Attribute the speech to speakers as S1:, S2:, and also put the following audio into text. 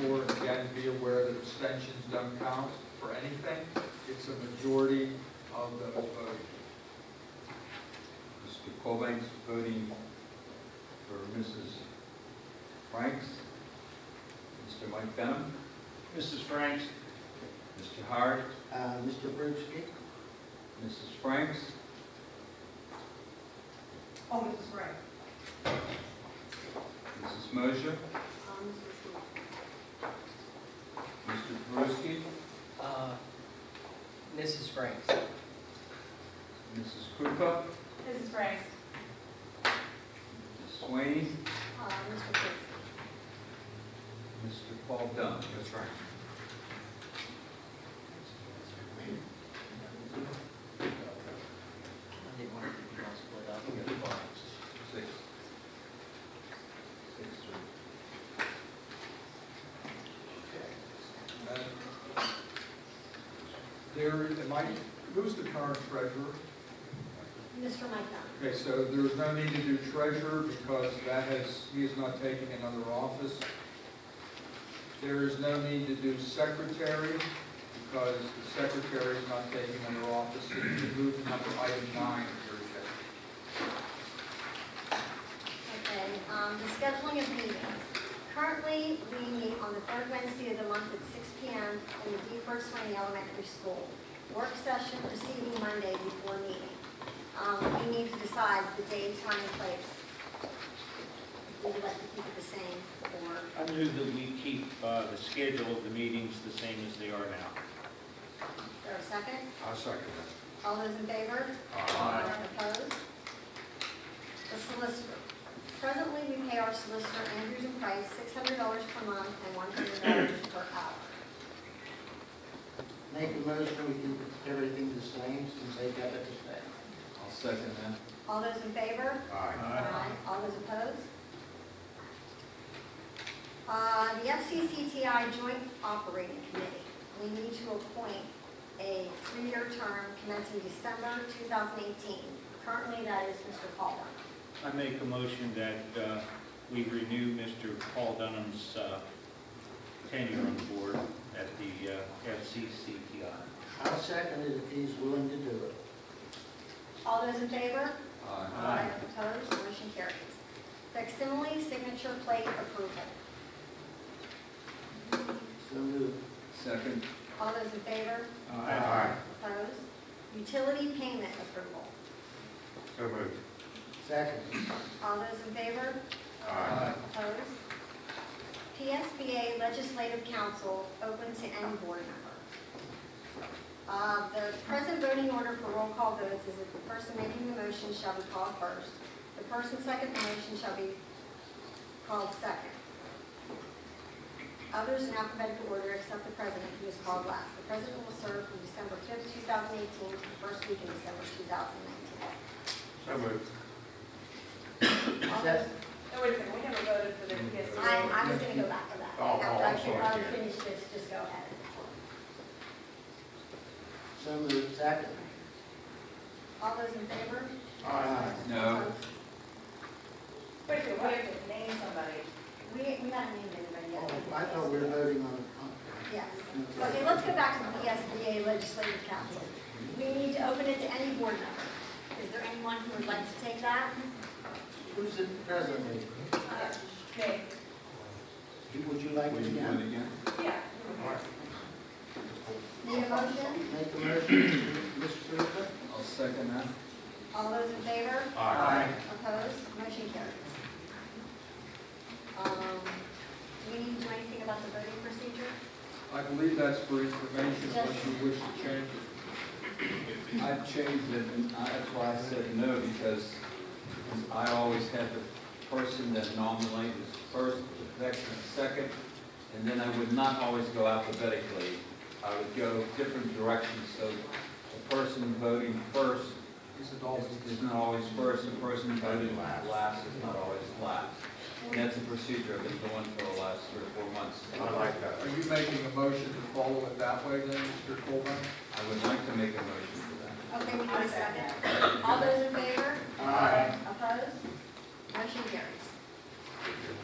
S1: Four, and again, be aware that abstentions don't count for anything. It's a majority of the vote.
S2: Mr. Cobain's voting for Mrs. Franks. Mr. Mike Benham,
S3: Mrs. Franks?
S2: Mr. Howard,
S4: Uh, Mr. Brewski?
S2: Mrs. Franks,
S5: Oh, Mrs. Gray.
S2: Mrs. Mosher,
S5: Um, Mrs. Wu.
S2: Mr. Perusky,
S6: Uh, Mrs. Franks.
S2: Mrs. Krupa,
S5: Mrs. Gray.
S2: Mrs. Swain,
S5: Uh, Mr. Brewski.
S2: Mr. Paul Dunn.
S1: That's right.
S6: I didn't want to be all split up.
S2: Six. Six, three.
S1: And There, am I, who's the current treasurer?
S5: Mr. Mike Dunn.
S1: Okay, so there's no need to do treasurer because that has, he is not taking another office. There is no need to do secretary because the secretary is not taking another office. So you can move to number item nine of your agenda.
S5: Okay, um, the scheduling of meetings. Currently, we meet on the third Wednesday of the month at six P M. in the D First Wayne Elementary School. Work session preceding Monday before meeting. Um, we need to decide the day, time, and place. Would you like to keep it the same or?
S3: I move that we keep uh, the schedule of the meetings the same as they are now.
S5: Is there a second?
S2: I'll second
S5: All those in favor?
S3: Aye.
S5: Opposed? The solicitor. Presently, we pay our solicitor Andrews and Price $600 per month and $100 per hour.
S4: Make a motion, we can keep everything the same since they got it the same.
S2: I'll second that.
S5: All those in favor?
S2: Aye.
S5: All those opposed? Uh, The FCCTI Joint Operating Committee, we need to appoint a three-year term commencing December 2018. Currently, that is Mr. Calder.
S3: I make a motion that uh, we renew Mr. Paul Dunham's uh, tenure on the board at the uh, FCCTI.
S4: I'll second it if he's willing to do it.
S5: All those in favor?
S2: Aye.
S3: Aye.
S5: Opposed, motion carries. Facsimile signature plate approval.
S4: So moved.
S2: Second.
S5: All those in favor?
S2: Aye.
S5: Opposed? Utility payment approval.
S2: So moved.
S4: Second.
S5: All those in favor?
S1: Uh,
S2: Aye.
S5: Opposed? PSBA Legislative Council, open to any board member. Uh, The present voting order for roll call votes is that the person making the motion shall be called first. The person second the motion shall be called second. Others in alphabetical order except the president, who is called last. The president will serve from December 5th, 2018 to the first week in December 2019.
S2: So moved.
S5: All those
S4: Second.
S7: No, wait a second, we haven't voted for the PSC.
S5: I, I was gonna go back to that.
S2: Oh, oh, I'm
S5: After I-
S2: sorry,
S5: I'll
S2: yeah.
S5: finish this, just go ahead.
S4: So moved. Second.
S5: All those in favor?
S4: Aye.
S2: No.
S5: Opposed?
S7: Wait a second, we have to name somebody.
S5: We, we haven't named anybody
S4: Oh,
S5: yet.
S4: I thought we were voting on a
S5: Yes.
S4: contract.
S5: Okay, let's go back to the E PSBA Legislative Council. We need to open it to any board member. Is there anyone who would like to take that?
S4: Who's the president?
S7: Uh, Name.
S4: Would you
S1: uh,
S4: like
S2: Will
S4: to
S2: you do it
S4: again?
S2: again?
S7: Yeah.
S5: Need a motion?
S4: Make a motion, Mr. Cooper?
S2: I'll second that.
S5: All those in favor?
S4: Aye.
S5: Opposed? Motion carries. Um, do we need to do anything about the voting procedure?
S1: I believe that's for information, unless you wish to change it.
S2: I've changed it, and I- that's why I said no, because I always had the person that nominated first, the veteran second, and then I would not always go alphabetically. I would go different directions, so the person voting first
S1: Is it all?
S2: is is not always first, the person voting last is not always last. And that's a procedure I've been doing for the last three or four months. I like that.
S1: Are you making a motion to follow it that way then, Mr. Coleman?
S2: I would like to make a motion for that.
S5: Okay, we need a second. All those in favor?
S4: Aye.
S5: Opposed? Motion carries.